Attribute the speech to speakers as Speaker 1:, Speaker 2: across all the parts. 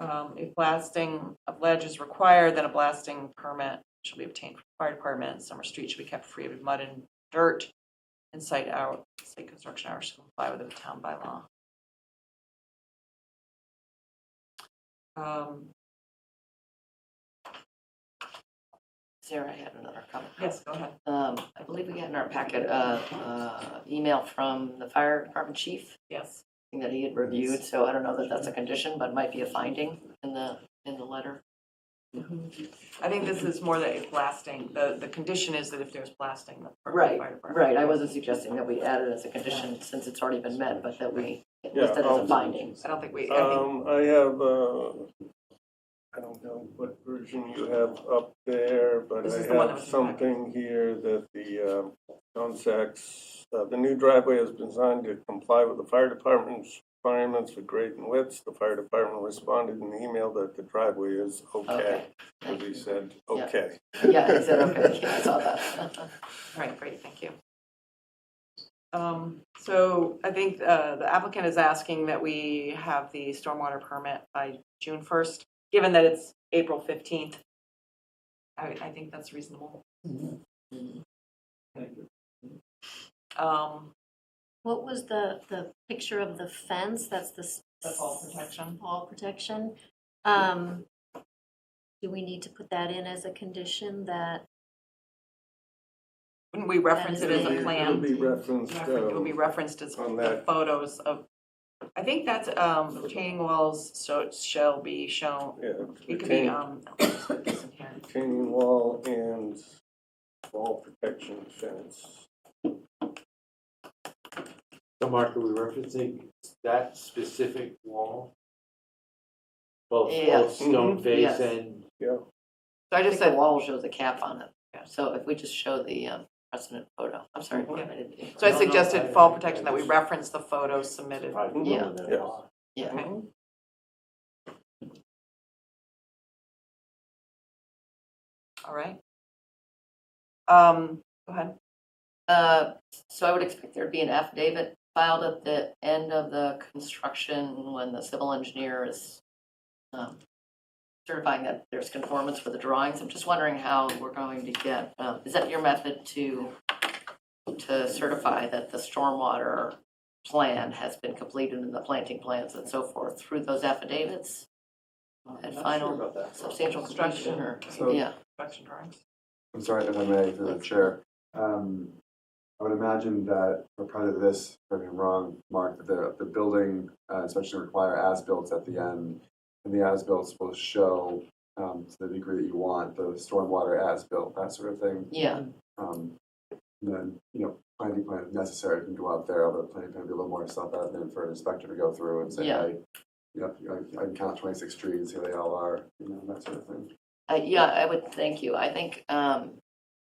Speaker 1: Um, if blasting of ledge is required, then a blasting permit should be obtained from the fire department. Summer Street should be kept free of mud and dirt. And site hour, site construction hours should comply with the town bylaw. Um,
Speaker 2: Sarah had another comment.
Speaker 1: yes, go ahead.
Speaker 2: Um, I believe we got in our packet, uh, uh, email from the fire department chief
Speaker 1: Yes.
Speaker 2: thing that he had reviewed, so I don't know that that's a condition, but it might be a finding in the, in the letter.
Speaker 1: I think this is more that if blasting, the, the condition is that if there's blasting, the fire
Speaker 2: Right,
Speaker 1: department.
Speaker 2: Right, I wasn't suggesting that we add it as a condition since it's already been met, but that we, at
Speaker 3: Yeah,
Speaker 2: least that as a
Speaker 3: I'll-
Speaker 2: finding.
Speaker 1: I don't think we, I think,
Speaker 3: Um, I have, uh, I don't know what version you have up there, but
Speaker 1: This
Speaker 3: I
Speaker 1: is the one that
Speaker 3: have
Speaker 1: was in the packet.
Speaker 3: something here that the, um, John Sachs, uh, the new driveway is designed to comply with the fire department's requirements for grade and widths. The fire department responded in the email that the driveway is okay.
Speaker 2: Okay,
Speaker 3: And we said,
Speaker 2: Yeah.
Speaker 3: okay.
Speaker 2: yeah, he said, okay, yeah, I saw that.
Speaker 1: all right, great, thank you. Um, so I think, uh, the applicant is asking that we have the stormwater permit by June first, given that it's April fifteenth. I, I think that's reasonable. Um,
Speaker 4: What was the, the picture of the fence? That's the. s-
Speaker 1: The fall protection.
Speaker 4: Fall protection. Um, do we need to put that in as a condition that,
Speaker 1: wouldn't we reference it as
Speaker 4: That is
Speaker 1: a
Speaker 4: a-
Speaker 1: plan?
Speaker 3: It'll be referenced,
Speaker 1: Refer- It will be
Speaker 3: um,
Speaker 1: referenced as
Speaker 3: on
Speaker 1: the
Speaker 3: that.
Speaker 1: photos of, I think that's, um, retaining walls, so it shall be shown,
Speaker 3: yeah,
Speaker 1: it could be,
Speaker 3: retaining-
Speaker 1: um, let's put this in here.
Speaker 3: retaining wall and wall protection fence.
Speaker 5: So Mark, are we referencing that specific wall? Both,
Speaker 2: Yeah.
Speaker 5: both stone
Speaker 3: Mhm.
Speaker 5: face
Speaker 2: Yes.
Speaker 5: and,
Speaker 2: So I just
Speaker 1: Like
Speaker 2: said wall shows a cap on it.
Speaker 1: Yeah.
Speaker 2: So if we just show the um, precedent photo, I'm sorry. what I did.
Speaker 1: So I
Speaker 5: No, no, I-
Speaker 1: suggested fall
Speaker 5: I-
Speaker 1: protection, that we reference the photos submitted.
Speaker 2: Yeah.
Speaker 3: Yeah.
Speaker 2: Yeah.
Speaker 1: Okay. All right. Um, go ahead.
Speaker 2: Uh, So I would expect there'd be an affidavit filed at the end of the construction when the civil engineer is um, certifying that there's conformance with the drawings. I'm just wondering how we're going to get, um, is that your method to, to certify that the stormwater plan has been completed and the planting plans and so forth through those affidavits? And final substantial construction or,
Speaker 6: So-
Speaker 2: yeah,
Speaker 1: Construction drawings.
Speaker 6: I'm sorry if I may, through the chair. Um, I would imagine that for part of this, if I'm wrong, Mark, that the, the building uh, inspection require as-built at the end. And the as-built will show, um, to the degree that you want, the stormwater as-built, that sort of thing.
Speaker 2: yeah.
Speaker 6: Um, and then, you know, planting plan if necessary can go out there, although planting plan would be a little more self-evident for an inspector to go through and say,
Speaker 2: Yeah.
Speaker 6: hey, yep, I, I can count twenty-six trees, here they all are, you know, that sort of thing.
Speaker 2: Uh, yeah, I would, thank you. I think, um,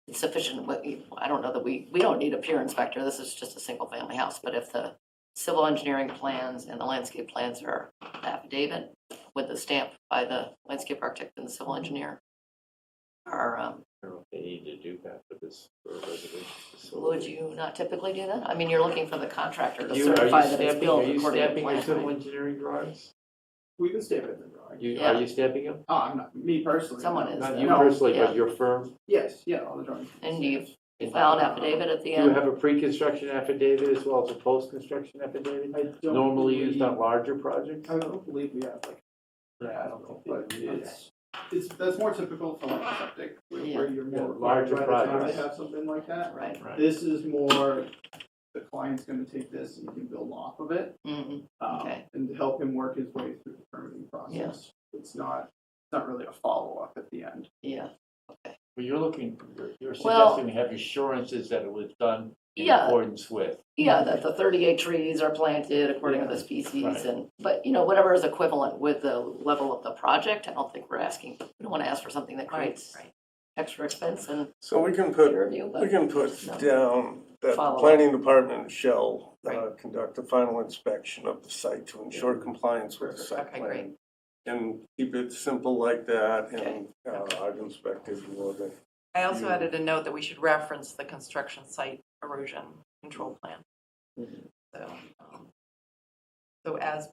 Speaker 2: it's sufficient, what you- I don't know that we, we don't need a peer inspector. This is just a single family house. But if the civil engineering plans and the landscape plans are affidavit with the stamp by the landscape architect and the civil engineer are, um,
Speaker 5: I don't know if they need to do that for this, for a residential
Speaker 2: would
Speaker 5: facility.
Speaker 2: you not typically do that? I mean, you're looking for the contractor to
Speaker 5: You- Are you
Speaker 2: certify that it's
Speaker 5: stamping, are
Speaker 2: built
Speaker 5: you
Speaker 2: according to
Speaker 5: stamping your
Speaker 2: plan.
Speaker 5: civil
Speaker 2: right?
Speaker 5: engineering drawings?
Speaker 7: We can stamp it in the drawing.
Speaker 5: You,
Speaker 2: Yeah.
Speaker 5: are you stamping them?
Speaker 7: Oh, I'm not, me personally.
Speaker 2: Someone
Speaker 7: no,
Speaker 2: is,
Speaker 7: not
Speaker 5: Not
Speaker 2: though.
Speaker 5: you
Speaker 7: no.
Speaker 5: personally,
Speaker 2: yeah.
Speaker 5: but your firm?
Speaker 7: Yes, yeah, all the drawings.
Speaker 2: And do you file an affidavit at the
Speaker 5: Do you
Speaker 2: end?
Speaker 5: have a pre-construction affidavit as well as a post-construction affidavit?
Speaker 7: I don't
Speaker 5: Normally used
Speaker 7: believe-
Speaker 5: on larger projects?
Speaker 7: I don't believe we have like,
Speaker 5: Yeah,
Speaker 7: I don't know, but
Speaker 5: think it is.
Speaker 7: it's, it's, that's more typical for like septic, where
Speaker 2: Yeah.
Speaker 7: where you're
Speaker 5: Yeah,
Speaker 7: more.
Speaker 5: larger
Speaker 7: by the time
Speaker 5: projects.
Speaker 7: They have something like that.
Speaker 2: Right.
Speaker 5: Right.
Speaker 7: This is more, the client's gonna take this and you can build off of it.
Speaker 2: Mhm.
Speaker 7: um,
Speaker 2: Okay.
Speaker 7: And help him work his way through the permitting process. It's not, it's not really a follow-up at the end.
Speaker 2: Yeah.
Speaker 5: Well, you're looking, you're- you're
Speaker 2: Well-
Speaker 5: suggesting we have assurances that it was done in
Speaker 2: Yeah.
Speaker 5: accordance with.
Speaker 2: Yeah, that the thirty-eight trees are planted according to the species
Speaker 5: Right.
Speaker 2: and, but you know, whatever is equivalent with the level of the project, I don't think we're asking, we don't want to ask for something that
Speaker 1: Right,
Speaker 2: creates
Speaker 1: right.
Speaker 2: extra expense and
Speaker 3: So we can put,
Speaker 2: peer review,
Speaker 3: we
Speaker 2: but
Speaker 3: can put
Speaker 2: No.
Speaker 3: down that the
Speaker 2: Follow up.
Speaker 3: planning department shall uh,
Speaker 1: Right.
Speaker 3: conduct a final inspection of the site to ensure compliance with the site
Speaker 1: Okay, great.
Speaker 3: plan. And keep it simple like that, and uh,
Speaker 1: Okay.
Speaker 3: I've inspected more than,
Speaker 1: I also
Speaker 3: Yeah.
Speaker 1: added a note that we should reference the construction site Mm-hmm. erosion control plan.
Speaker 2: Mhm.
Speaker 1: So, um, so as